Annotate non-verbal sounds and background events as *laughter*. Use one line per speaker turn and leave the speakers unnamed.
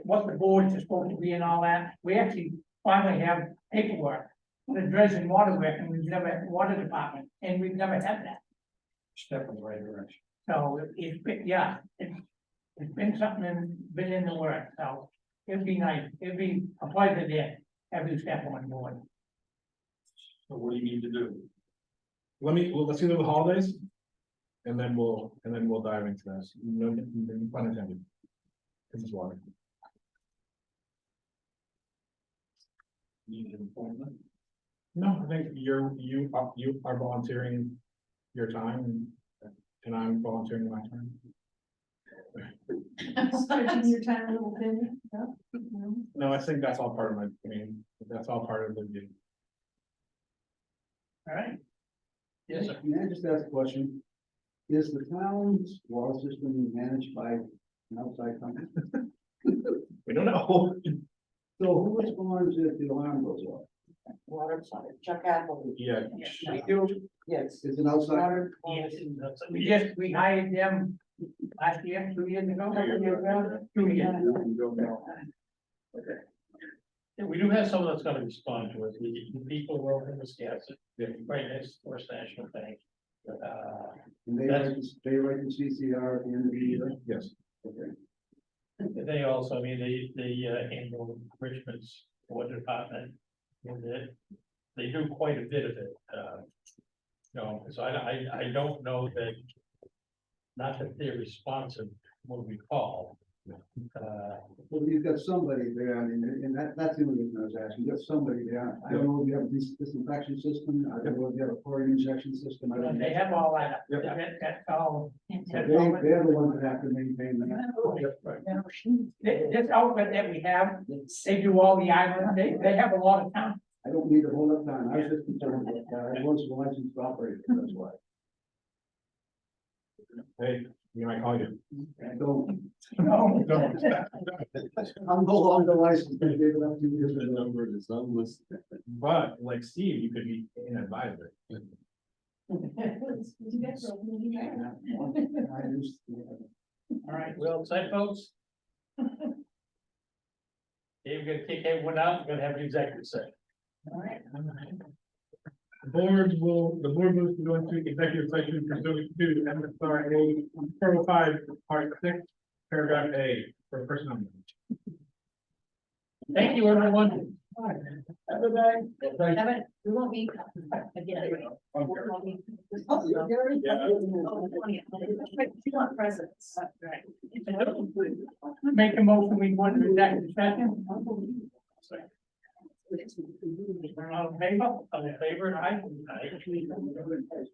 what the boards are supposed to be and all that, we actually finally have paperwork. The dredging water work, and we've never, water department, and we've never had that,
step in the right direction.
so it's, been- yeah, it's. It's been something, in- been in the works, so it'd be nice, it'd be a pleasure to have you step on board.
So what do you need to do?
Let me, well, let's do the holidays. And then we'll, and then we'll dive into this, no, no pun intended. This is water.
Need an appointment?
No, I think you're, you, are- you are volunteering your time and- and I'm volunteering my time.
Stretching your time a little bit, yeah. Mhm.
No, I think that's all part of my, I mean, that's all part of the,
All right,
Yes, sir.
Can I just ask a question? Is the town's water system managed by an outside company?
we don't know. *laughs*
So who responds if the alarm goes off?
Water, sorry, Chuck Apple,
Yeah,
we do,
yes.
Is it outside?
Water.
Oh,
yes, we just, we hired them last year, two years ago, three years ago, two years.
Yeah, we do have someone that's gonna respond to us, we, the people who are in Wisconsin, they're right next to First National Bank. Uh,
And they write, they write in CCR and the meter?
yes.
Okay.
they also, I mean, they, they uh, handle Richmond's water department. And they, they do quite a bit of it, uh. You know, so I, I, I don't know that. Not that they're responsive when we call. Uh,
Well, you've got somebody there, I mean, and that, that's the only reason I was asking, you've got somebody there. I don't know if you have a dis- disinfection system, I don't know if you have a chlorine injection system, I don't know.
They have all that,
Yep.
that, that's all.
They,
that's all it-
they're the ones that have to maintain that.
This, this outfit that we have, they do all the island, they, they have a lot of town.
I don't need a whole lot of time, I was just concerned with that, I was licensed operator, that's why.
Hey, you might call you.
I don't,
No,
Don't.
I'm no longer licensed, they gave it up two years ago.
number is unlisted. But like Steve, you could be an advisor.
You get to open it, you
I
get it.
used to-
All right,
well, side folks.
*laughs*
Dave, we're gonna kick everyone out, we're gonna have an executive session.
Board will, the board moves to go into executive session pursuant to MSRA Article oh five, part six, paragraph A, for personnel.
Thank you, everyone.
Have it, we won't be again. We won't be- Oh, there is-
Yeah.
Oh, yeah. You want presents.
make a motion, we want to executive session,
Sorry.
all in favor?
All in favor?
Aye.
Aye.